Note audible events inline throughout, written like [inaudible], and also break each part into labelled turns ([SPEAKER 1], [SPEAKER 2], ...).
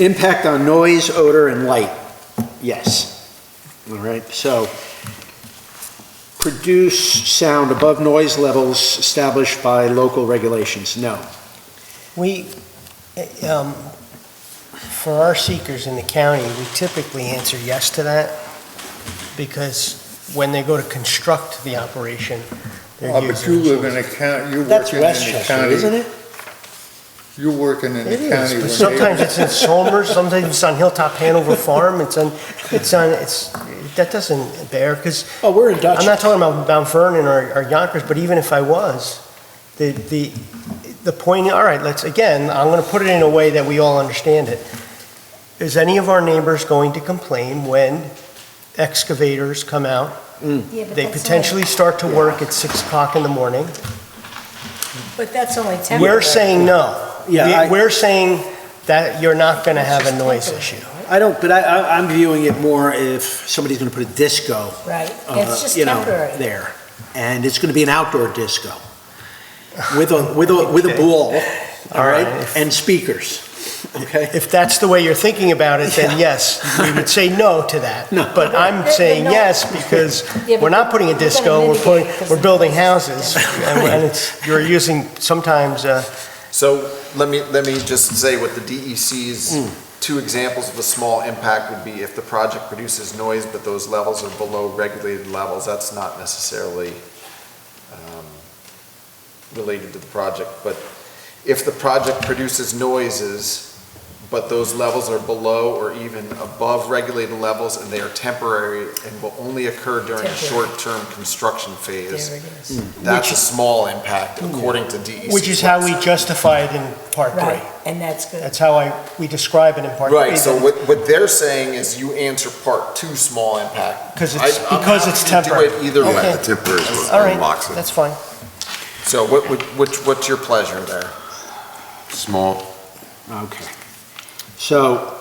[SPEAKER 1] Impact on noise, odor, and light, yes. All right, so produce sound above noise levels established by local regulations, no.
[SPEAKER 2] We, eh, um, for our seekers in the county, we typically answer yes to that, because when they go to construct the operation, they're
[SPEAKER 3] Oh,
[SPEAKER 2] using...
[SPEAKER 3] but you live in a county, you're
[SPEAKER 1] That's
[SPEAKER 3] working in the
[SPEAKER 1] Westchester, isn't
[SPEAKER 3] county.
[SPEAKER 1] it?
[SPEAKER 3] You're working in the
[SPEAKER 2] It
[SPEAKER 3] county.
[SPEAKER 2] is,
[SPEAKER 3] when
[SPEAKER 2] but
[SPEAKER 3] they-
[SPEAKER 2] sometimes it's in Somers, sometimes it's on Hilltop Hanover Farm, it's on, it's on, it's, that doesn't bear, because
[SPEAKER 1] Oh, we're in Dutch.
[SPEAKER 2] I'm not talking about Mount Vernon or or Yonkers, but even if I was, the, the, the point, all right, let's, again, I'm gonna put it in a way that we all understand it. Is any of our neighbors going to complain when excavators come out?
[SPEAKER 4] Yeah, but
[SPEAKER 2] They
[SPEAKER 4] that's
[SPEAKER 2] potentially start to work at six o'clock in the morning?
[SPEAKER 4] only- But that's only temporary.
[SPEAKER 2] We're saying no.
[SPEAKER 1] Yeah, I-
[SPEAKER 2] We- We're saying that you're not gonna have a noise issue.
[SPEAKER 1] I don't, but I, I- I'm viewing it more if somebody's gonna put a disco,
[SPEAKER 4] Right,
[SPEAKER 1] uh,
[SPEAKER 4] it's just
[SPEAKER 1] you know,
[SPEAKER 4] temporary.
[SPEAKER 1] there. And it's gonna be an outdoor disco with a, with a, with a ball, all right, and speakers, okay?
[SPEAKER 2] If that's the way you're thinking about it, then yes, we would say no to that.
[SPEAKER 1] No.
[SPEAKER 2] But I'm
[SPEAKER 4] They're-
[SPEAKER 2] saying
[SPEAKER 4] they're not-
[SPEAKER 2] yes because
[SPEAKER 4] [laughs] Yeah, but
[SPEAKER 2] we're not putting a
[SPEAKER 4] we're gonna
[SPEAKER 2] disco, we're
[SPEAKER 4] mitigate
[SPEAKER 2] putting,
[SPEAKER 4] it 'cause
[SPEAKER 2] we're
[SPEAKER 4] of
[SPEAKER 2] building
[SPEAKER 4] noise. [laughs]
[SPEAKER 2] houses. And and it's, you're using sometimes, uh,
[SPEAKER 5] So let me, let me just say what the
[SPEAKER 2] Hmm.
[SPEAKER 5] DEC's, two examples of a small impact would be if the project produces noise, but those levels are below regulated levels, that's not necessarily um, related to the project, but if the project produces noises, but those levels are below or even above regulated levels and they are temporary and will only occur during a
[SPEAKER 4] Temporary.
[SPEAKER 5] short-term construction
[SPEAKER 4] There
[SPEAKER 5] phase,
[SPEAKER 4] it is.
[SPEAKER 5] that's a small impact according to E DEC.
[SPEAKER 2] which is how we justify it in part
[SPEAKER 4] Right,
[SPEAKER 2] three.
[SPEAKER 4] and that's good.
[SPEAKER 2] That's how I, we describe it in part three.
[SPEAKER 5] Right, so what, what they're saying is you answer part two, small impact.
[SPEAKER 2] 'Cause it's-
[SPEAKER 5] I- I'm
[SPEAKER 2] because it's
[SPEAKER 5] happy to Do it either
[SPEAKER 2] Okay.
[SPEAKER 5] way.
[SPEAKER 6] The temporary is
[SPEAKER 2] All
[SPEAKER 6] what
[SPEAKER 2] right,
[SPEAKER 6] unlocks it.
[SPEAKER 2] that's fine.
[SPEAKER 5] So what, would- which, what's your pleasure there? [laughs]
[SPEAKER 6] Small,
[SPEAKER 1] Okay. So,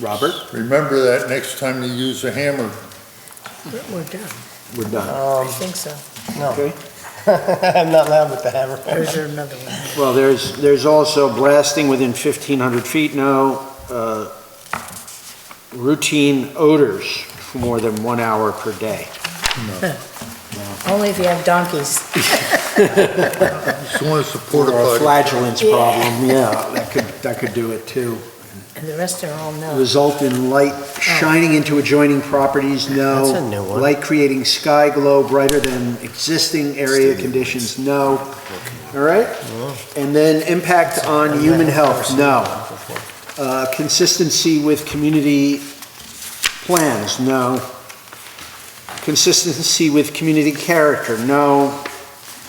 [SPEAKER 1] Robert?
[SPEAKER 3] Remember that next time you use a hammer.
[SPEAKER 4] We're done,
[SPEAKER 1] We're done.
[SPEAKER 4] I
[SPEAKER 2] Um,
[SPEAKER 4] think so.
[SPEAKER 2] no.
[SPEAKER 1] Okay.
[SPEAKER 2] [laughs] I'm not loud with the hammer.
[SPEAKER 4] There's another one.
[SPEAKER 1] Well, there's, there's also blasting within 1,500 feet, no. uh, Routine odors for more than one hour per day.
[SPEAKER 4] Only if you have donkeys.
[SPEAKER 3] Just want to support a
[SPEAKER 1] Or a
[SPEAKER 3] buddy.
[SPEAKER 1] flagellance
[SPEAKER 4] Yeah.
[SPEAKER 1] problem, yeah, that could, that could do it too.
[SPEAKER 4] And the rest are all no.
[SPEAKER 1] Result in light shining into adjoining properties, no.
[SPEAKER 2] That's a new one.
[SPEAKER 1] Light creating sky glow brighter than existing area conditions, no. All right? And then impact on human health, no. Uh, Consistency with community plans, no. Consistency with community character, no.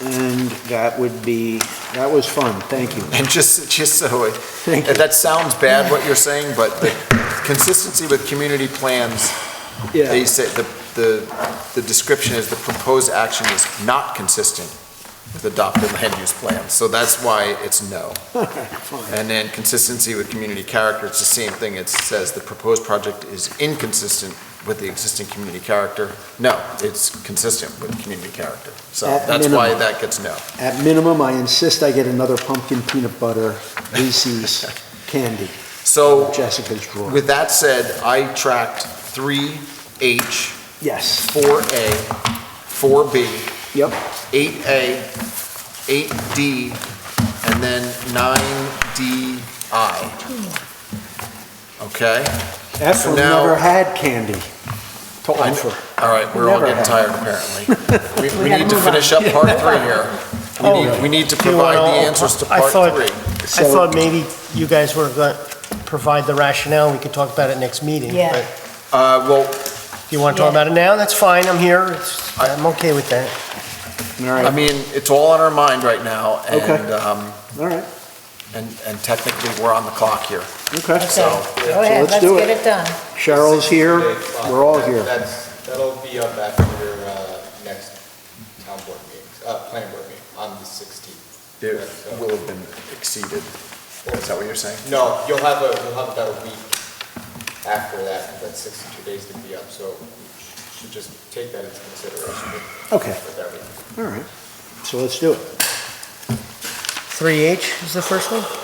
[SPEAKER 1] And that would be, that was fun, thank you.
[SPEAKER 5] And just, just so, it-
[SPEAKER 1] Thank you.
[SPEAKER 5] that sounds bad what you're saying, but
[SPEAKER 2] [laughs]
[SPEAKER 5] the consistency with community plans, they
[SPEAKER 1] [laughs] Yeah,
[SPEAKER 5] say, the, the, the description is the proposed action is not consistent with adopted land use plans, so that's why it's no. And then consistency with community character, it's the same thing. It says the proposed project is inconsistent with the existing community character. No, it's consistent with community character. So
[SPEAKER 1] At
[SPEAKER 5] that's why
[SPEAKER 1] minimum.
[SPEAKER 5] that gets no.
[SPEAKER 1] at minimum, I insist I get another pumpkin peanut butter
[SPEAKER 5] [laughs]
[SPEAKER 1] Reese's candy,
[SPEAKER 5] So
[SPEAKER 1] Jessica's drawer.
[SPEAKER 5] with that said, I tracked three H,
[SPEAKER 1] Yes,
[SPEAKER 5] four A, four B,
[SPEAKER 1] yep,
[SPEAKER 5] eight A, eight D, and then nine D I. Okay?
[SPEAKER 1] F
[SPEAKER 5] So now-
[SPEAKER 1] never had candy to offer.
[SPEAKER 5] Oh, All right, we're all
[SPEAKER 1] Never
[SPEAKER 5] getting
[SPEAKER 1] had.
[SPEAKER 5] tired
[SPEAKER 2] [laughs]
[SPEAKER 5] apparently. We- We need to
[SPEAKER 4] move on.
[SPEAKER 5] finish up part three here. We
[SPEAKER 2] Oh.
[SPEAKER 5] need, we need to
[SPEAKER 2] Do you wanna-
[SPEAKER 5] provide the answers to
[SPEAKER 2] I
[SPEAKER 5] part
[SPEAKER 2] thought-
[SPEAKER 5] three.
[SPEAKER 2] I
[SPEAKER 1] So-
[SPEAKER 2] thought maybe you guys were going to provide the rationale, we could talk about it next meeting.
[SPEAKER 4] Yeah.
[SPEAKER 2] but-
[SPEAKER 5] Uh, well,
[SPEAKER 2] You want to talk
[SPEAKER 4] Yeah.
[SPEAKER 2] about it now? That's fine, I'm here. It's- I'm okay with that.
[SPEAKER 1] All
[SPEAKER 5] I
[SPEAKER 1] right,
[SPEAKER 5] mean, it's all on our mind right now and,
[SPEAKER 1] Okay.
[SPEAKER 5] um,
[SPEAKER 1] all right,
[SPEAKER 5] and, and technically we're on the clock here.
[SPEAKER 1] okay.
[SPEAKER 4] Okay,
[SPEAKER 5] So-
[SPEAKER 4] go ahead,
[SPEAKER 1] let's
[SPEAKER 4] let's
[SPEAKER 1] do
[SPEAKER 4] get
[SPEAKER 1] it.
[SPEAKER 4] it done.
[SPEAKER 1] Cheryl's here, we're all here.
[SPEAKER 7] That's, that'll be up after your uh, next town board meeting, uh, planning board meeting, on the 16th.
[SPEAKER 5] It will have been exceeded. Is that what you're saying?
[SPEAKER 7] No, you'll have a, you'll have about a week after that, 'cause that's 62 days to be up, so you should just take that into consideration with
[SPEAKER 1] Okay,
[SPEAKER 7] with everything.
[SPEAKER 1] all right, so let's do it.
[SPEAKER 2] 3H is the first one?